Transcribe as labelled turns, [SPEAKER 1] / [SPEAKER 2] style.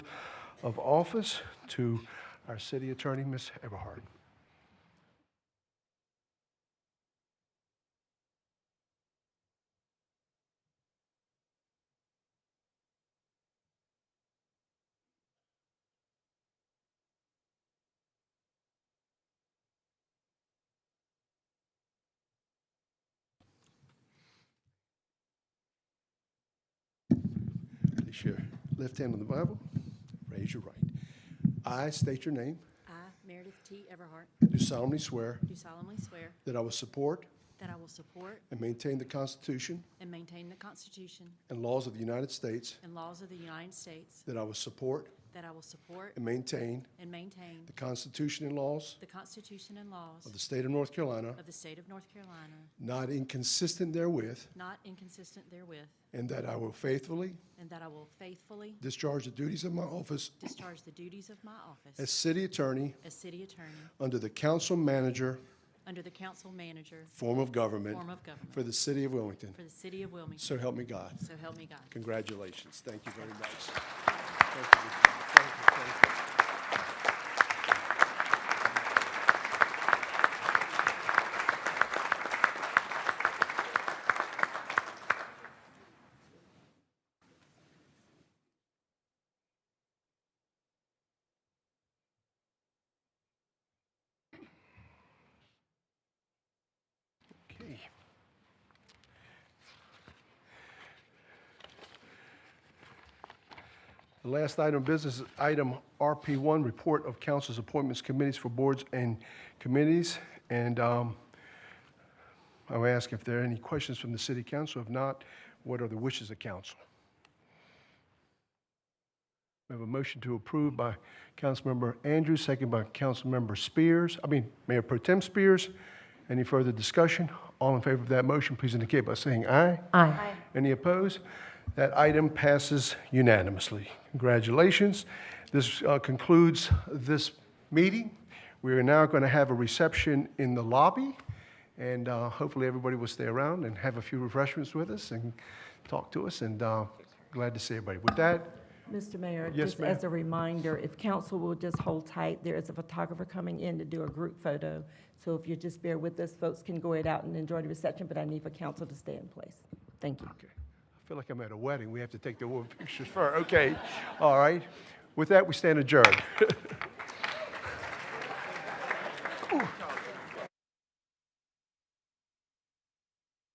[SPEAKER 1] of office to our city attorney, Ms. Everhart. Place your left hand on the Bible, raise your right. I state your name,
[SPEAKER 2] I, Meredith T. Everhart,
[SPEAKER 1] do solemnly swear
[SPEAKER 2] do solemnly swear
[SPEAKER 1] that I will support
[SPEAKER 2] that I will support
[SPEAKER 1] and maintain the Constitution
[SPEAKER 2] and maintain the Constitution
[SPEAKER 1] and laws of the United States,
[SPEAKER 2] and laws of the United States,
[SPEAKER 1] that I will support
[SPEAKER 2] that I will support
[SPEAKER 1] and maintain
[SPEAKER 2] and maintain
[SPEAKER 1] the Constitution and laws
[SPEAKER 2] the Constitution and laws
[SPEAKER 1] of the state of North Carolina,
[SPEAKER 2] of the state of North Carolina,
[SPEAKER 1] not inconsistent therewith,
[SPEAKER 2] not inconsistent therewith,
[SPEAKER 1] and that I will faithfully
[SPEAKER 2] and that I will faithfully
[SPEAKER 1] discharge the duties of my office
[SPEAKER 2] discharge the duties of my
[SPEAKER 1] as
[SPEAKER 2] office
[SPEAKER 1] city attorney
[SPEAKER 2] as city attorney
[SPEAKER 1] under the council manager
[SPEAKER 2] under the council manager
[SPEAKER 1] form of government
[SPEAKER 2] form of government
[SPEAKER 1] for the city of Wilmington.
[SPEAKER 2] for the city of Wilmington.
[SPEAKER 1] So help me God.
[SPEAKER 2] So help me God.
[SPEAKER 1] Congratulations. Thank you very much. Thank you. Thank you. Thank you. Okay. The last item of business is item RP1, Report of Council's Appointments Committees for Boards and Committees. And um, I will ask if there are any questions from the city council. If not, what are the wishes of council? We have a motion to approve by Councilmember Andrews, second by Councilmember Spears, I mean, Mayor Pro Tem Spears. Any further discussion? All in favor of that motion, please indicate by saying aye. Aye. Any opposed? That item passes unanimously. Congratulations. This uh, concludes this meeting. We are now going to have a reception in the lobby, and uh, hopefully everybody will stay around and have a few refreshments with us and talk to us, and uh, glad to see everybody. With that,
[SPEAKER 3] Mr. Mayor,
[SPEAKER 1] Yes,
[SPEAKER 3] just
[SPEAKER 1] ma'am.
[SPEAKER 3] as a reminder, if council will just hold tight, there is a photographer coming in to do a group photo. So if you just bear with us, folks can go it out and enjoy the reception, but I need for council to stay in place. Thank you.
[SPEAKER 1] Okay. I feel like I'm at a wedding. We have to take the woman pictures first. Okay. All right. With that, we stand adjourned.